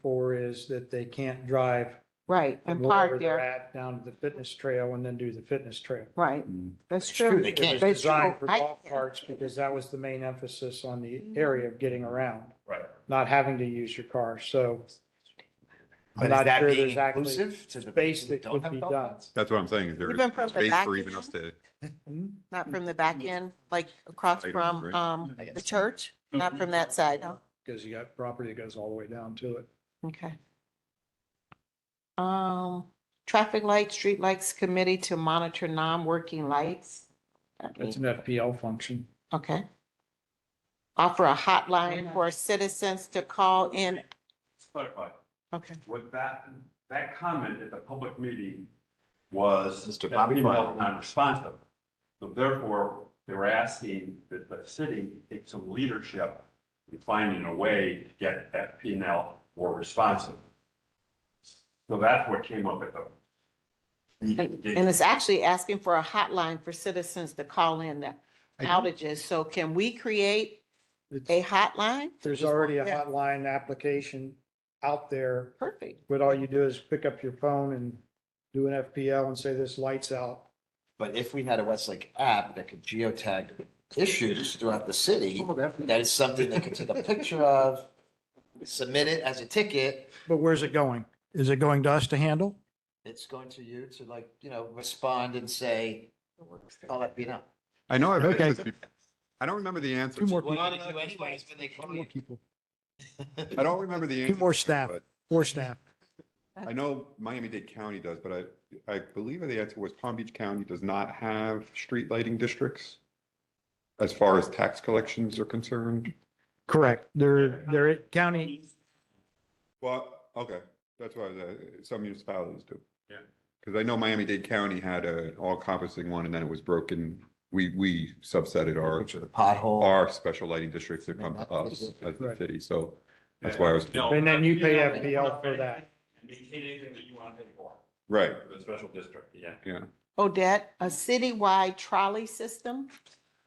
for is that they can't drive right, from and wherever park they're there, at down to the fitness trail and then do the fitness trail. right, that's It's true, true. they It can't. was That's designed for true. I- Mm. golf carts because that was the main emphasis on the area of getting around, Right. not having to use your car. So But I'm is not that sure being there's actually inclusive to the space people who that don't would have be dog done. pounds? That's what I'm saying. Is there Even from the space back for even end? us to? Hmm? Not from the back end, like across Right, from, right. um, I guess. Mm-hmm. the church, not from that side, huh? because you got property that goes all the way down to it. Okay. Um, traffic light, street lights committee to monitor non-working lights. That It's means- Mm. an FPL function. Okay. Offer a hotline for citizens to call in, clarify, okay. what that, that comment at the public meeting was. Mr. that Bobby people Brown. were Non-responsive. So therefore, they were asking that the city take some leadership in finding a way to get that P and L more responsive. So that's what came up at And the. and it's actually asking for a hotline for citizens to call in the outages. So can we create It's- a hotline? There's already a Yeah. hotline application out there, Perfect. but all you do is pick up your phone and do an FPL and say this light's out. But if we had a Westlake app that could geotag issues throughout the Oh, city, that is something they could take a picture of, submit it as a ticket, But where's it going? Is it going to us to handle? it's going to you to like, you know, respond and say, I'll let me know. I know I've had this. bef- I don't remember the answer. Well, I don't know anyways when they call you. people. I don't remember the answer. more staff. but Four staff. I know Miami-Dade County does, but I, I believe the answer was Palm Beach County does not have street lighting districts as far as tax collections are concerned. Correct. They're, they're at county, Well, okay, that's why uh, some municipalities do. Yeah. Because I know Miami-Dade County had an all-encompassing one and then it was broken. We, we subsetted our, Picture of the pothole. our special lighting districts that come to us as the Right. city, so that's why I was, And then you pay FPL for that. Maintain anything that you want to pay for, right, for the special district, yeah. yeah. Odette, a citywide trolley system?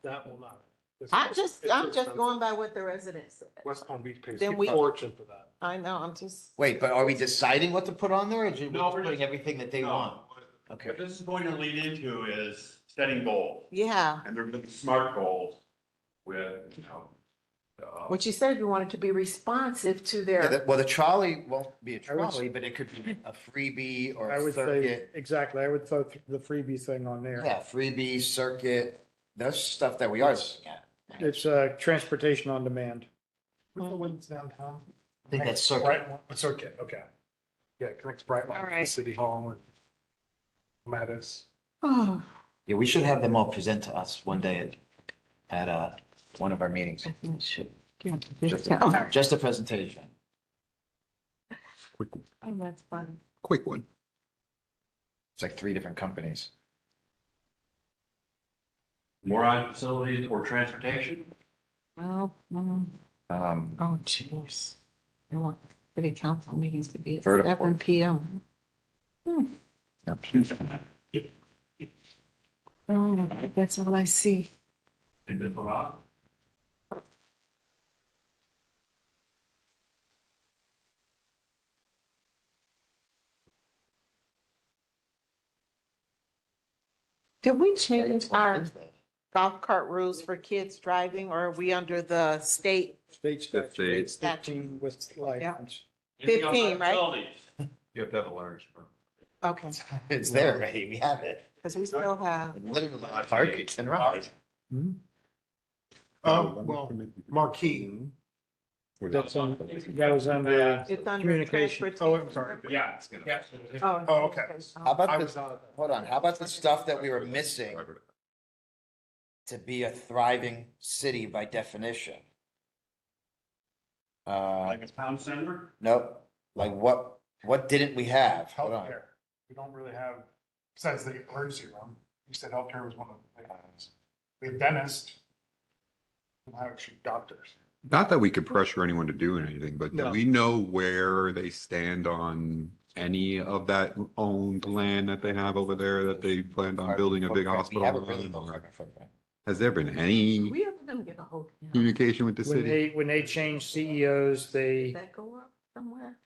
That will not. It's- I'm just, it's I'm just expensive. going by what the residents said. West Palm Beach pays Then a we- fortune for that. I know, I'm just, Wait, but are we deciding what to put on there or are we No, just we're putting just- everything that they No, want? Okay. What this is going to lead into is setting goals. yeah, And they're gonna be smart goals with, you know. uh, what you said, you wanted to be responsive to Yeah, their, that- Well, the trolley won't be a I would- trolley, but it could be a freebie or I a would say, circuit. exactly. I would throw the freebie thing on there. Yeah, freebie, circuit, that's stuff that we are looking at. It's, uh, transportation on demand. What's the one downtown? I think that's circuit. Brighton, it's okay, okay. Yeah, it connects Brightline All to the right. city hall and Mattis. oh, Yeah, we should have them all present to us one day at, at, uh, one of our meetings. I think it should. Just Oh, a- just a presentation. Oh, that's fun. Quick one. It's like three different companies. More on facilities or transportation? Well, mm, Um, oh, jeez. I want city council meetings to be at Vertical. seven P M. Hmm. Oh, that's all I see. Did it put off? Did we change our golf cart rules for kids driving or are we under the state? State That's statute, the- fifteen with license. Anything else on 15, right? facilities? You have to have a large. Okay, It's there, right? We have it. because we still have, Literally, park, it's in Raleigh. Uh, Oh, well, Marquee. That's on, that was on the it's under communication. transportation. Oh, I'm sorry. Yeah. Yeah. Oh, Oh, okay. How I about was this, on it. hold on, how about the stuff that we were missing to be a thriving city by definition? Uh, Like a town center? nope, like what, what didn't we have? Hold on. Healthcare. We don't really have, besides the emergency room, you said healthcare was one of the things. We have dentists. We don't have actually doctors. Not that we could pressure anyone to do anything, but do No. we know where they stand on any of that owned land that they have over there that they planned on building a big Footprint. hospital? We haven't really built on? our footprint. Has there been any We are gonna get a hold. communication with the When city? E they, when they change CEOs, they, that go up somewhere?